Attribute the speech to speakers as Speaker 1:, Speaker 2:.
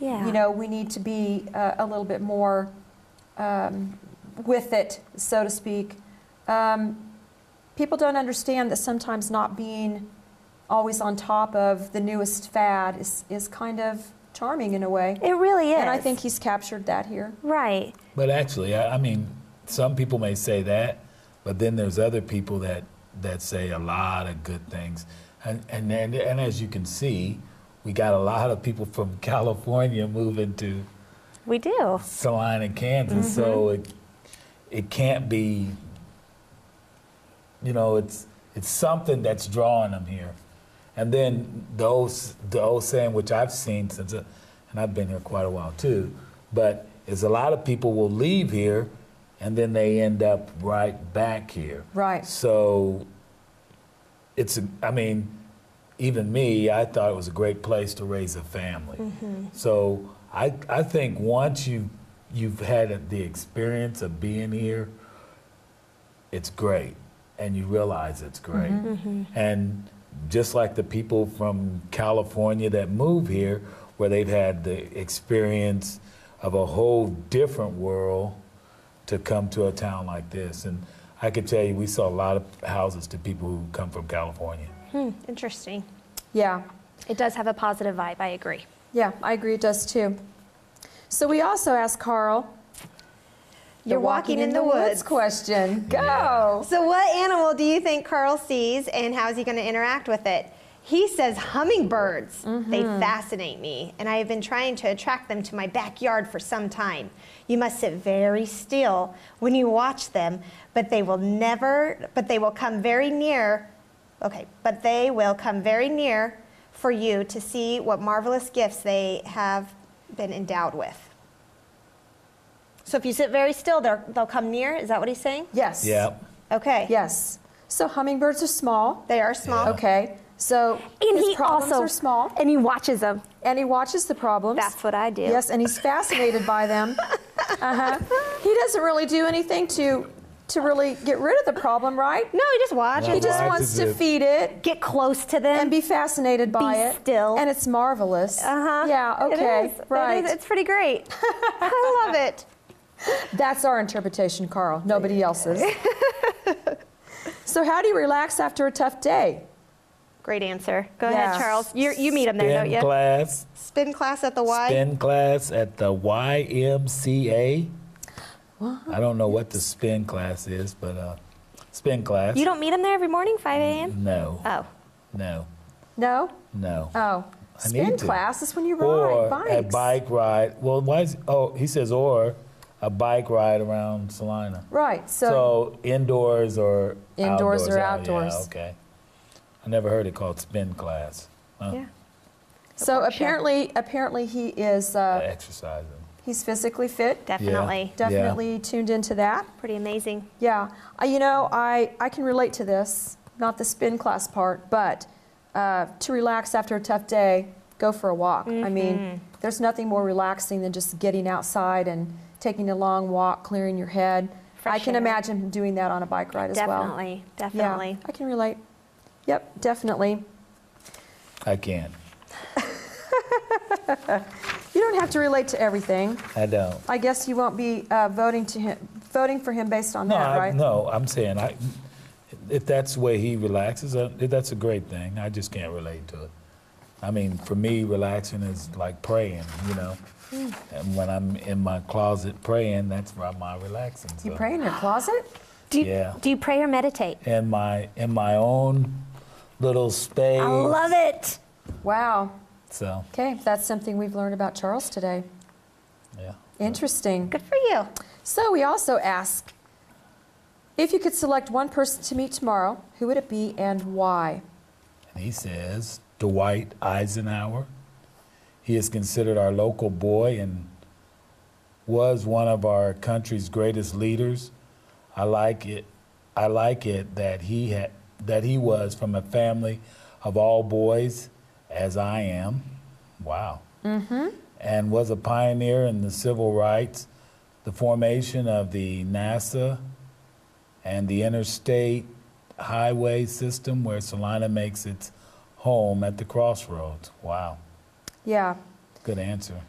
Speaker 1: Yeah.
Speaker 2: you know, we need to be uh, a little bit more um, with it, so to speak. Um, people don't understand that sometimes not being always on top of the newest fad is, is kind of charming in a way.
Speaker 1: It really is.
Speaker 2: And I think he's captured that here.
Speaker 1: Right.
Speaker 3: But actually, I, I mean, some people may say that, but then there's other people that that say a lot of good things, and and and, and as you can see, we got a lot of people from California moving to
Speaker 1: We do.
Speaker 3: Salina, Kansas, so it it can't be. You know, it's it's something that's drawing them here, and then the old s- the old saying which I've seen since, uh, and I've been here quite a while too, but is a lot of people will leave here, and then they end up right back here.
Speaker 2: Right.
Speaker 3: So it's a- I mean, even me, I thought it was a great place to raise a family. So I I think once you you've had the experience of being here, it's great, and you realize it's great. And just like the people from California that move here, where they've had the experience of a whole different world to come to a town like this. And I could tell you, we saw a lot of houses to people who come from California.
Speaker 4: Interesting.
Speaker 2: Yeah.
Speaker 4: It does have a positive vibe, I agree.
Speaker 2: Yeah, I agree it does too. So we also asked Carl.
Speaker 5: You're walking in the woods.
Speaker 2: question. Go.
Speaker 5: So, what animal do you think Carl sees and how is he going to interact with it? He says hummingbirds. They fascinate me, and I have been trying to attract them to my backyard for some time. You must sit very still when you watch them, but they will never, but they will come very near. Okay, but they will come very near for you to see what marvelous gifts they have been endowed with. So if you sit very still, they'll, they'll come near. Is that what he's saying?
Speaker 2: Yes.
Speaker 3: Yeah.
Speaker 5: Okay.
Speaker 2: Yes. So hummingbirds are small.
Speaker 5: They are small.
Speaker 2: Okay. So
Speaker 1: Oh. And
Speaker 2: his
Speaker 1: he
Speaker 2: problems
Speaker 1: also
Speaker 2: are small,
Speaker 1: And he watches them.
Speaker 2: and he watches the problems.
Speaker 1: That's what I do.
Speaker 2: Yes, and he's fascinated by them. Uh-huh. He doesn't really do anything to to really get rid of the problem, right?
Speaker 5: No, you just watch.
Speaker 3: Wow.
Speaker 2: He just
Speaker 3: Watches
Speaker 2: wants to
Speaker 3: it.
Speaker 2: feed it
Speaker 1: Get close to them.
Speaker 2: and be fascinated by it.
Speaker 1: still.
Speaker 2: And it's marvelous.
Speaker 1: Uh-huh.
Speaker 2: Yeah,
Speaker 1: It
Speaker 2: okay.
Speaker 1: is. It is.
Speaker 2: Right.
Speaker 1: It's pretty great.
Speaker 5: I love it.
Speaker 2: That's our interpretation, Carl. Nobody else's. so how do you relax after a tough day?
Speaker 4: Great answer.
Speaker 5: Go
Speaker 2: Yeah.
Speaker 5: ahead, Charles.
Speaker 4: You, you meet them there, don't
Speaker 3: Spin
Speaker 4: you?
Speaker 3: class,
Speaker 5: Spin class at the Y.
Speaker 3: spin class at the YMCA. I don't know what the spin class is, but uh, spin class. Mm-hmm.
Speaker 4: You don't meet them there every morning, 5 a.m.?
Speaker 3: No.
Speaker 4: Oh.
Speaker 3: No.
Speaker 2: No?
Speaker 3: No.
Speaker 2: Oh.
Speaker 3: I
Speaker 2: Spin
Speaker 3: need to.
Speaker 2: class is when you ride
Speaker 3: or a
Speaker 2: bikes.
Speaker 3: bike ride. Well, why is oh he says or a bike ride around Salina.
Speaker 2: Right. So,
Speaker 3: So indoors or
Speaker 2: Indoors or
Speaker 3: Oh, yeah,
Speaker 2: outdoors.
Speaker 3: okay. I never heard it called spin class. Huh?
Speaker 4: Yeah.
Speaker 2: so
Speaker 4: workshop.
Speaker 2: apparently apparently he is uh,
Speaker 3: Uh, exercising.
Speaker 2: he's physically fit.
Speaker 4: Definitely.
Speaker 3: Yeah.
Speaker 2: Definitely tuned into that.
Speaker 4: Pretty amazing.
Speaker 2: Yeah, I, you know, I, I can relate to this, not the spin class part, but uh, to relax after a tough day, go for a walk. I
Speaker 4: Mm-hmm.
Speaker 2: mean, there's nothing more relaxing than just getting outside and taking a long walk, clearing your head. I
Speaker 4: Fresh
Speaker 2: can
Speaker 4: air.
Speaker 2: imagine him doing that on a bike ride as well.
Speaker 4: Definitely. Definitely.
Speaker 2: Yeah, I can relate. Yep, definitely.
Speaker 3: I can't.
Speaker 2: You don't have to relate to everything.
Speaker 3: I don't.
Speaker 2: I guess you won't be uh, voting to him, voting for him based on
Speaker 3: No,
Speaker 2: that,
Speaker 3: I,
Speaker 2: right?
Speaker 3: no. I'm saying I, if that's the way he relaxes, uh, that's a great thing. I just can't relate to it. I mean, for me, relaxing is like praying, you know.
Speaker 2: Hmm.
Speaker 3: And when I'm in my closet praying, that's where my relaxing.
Speaker 2: You
Speaker 3: so.
Speaker 2: pray in your closet?
Speaker 1: Do you,
Speaker 3: Yeah.
Speaker 1: do you pray or meditate?
Speaker 3: in my in my own little space.
Speaker 1: I love it.
Speaker 2: Wow.
Speaker 3: So
Speaker 2: Okay, that's something we've learned about Charles today.
Speaker 3: yeah.
Speaker 2: Interesting.
Speaker 5: Good for you.
Speaker 2: So we also ask if you could select one person to meet tomorrow, who would it be and why?
Speaker 3: And he says Dwight Eisenhower. He is considered our local boy and was one of our country's greatest leaders. I like it. I like it that he had that he was from a family of all boys, as I am. Wow. and was a pioneer in the civil rights, the formation of the NASA and the interstate highway system where Salina makes its home at the crossroads. Wow,
Speaker 2: Yeah.
Speaker 3: good answer.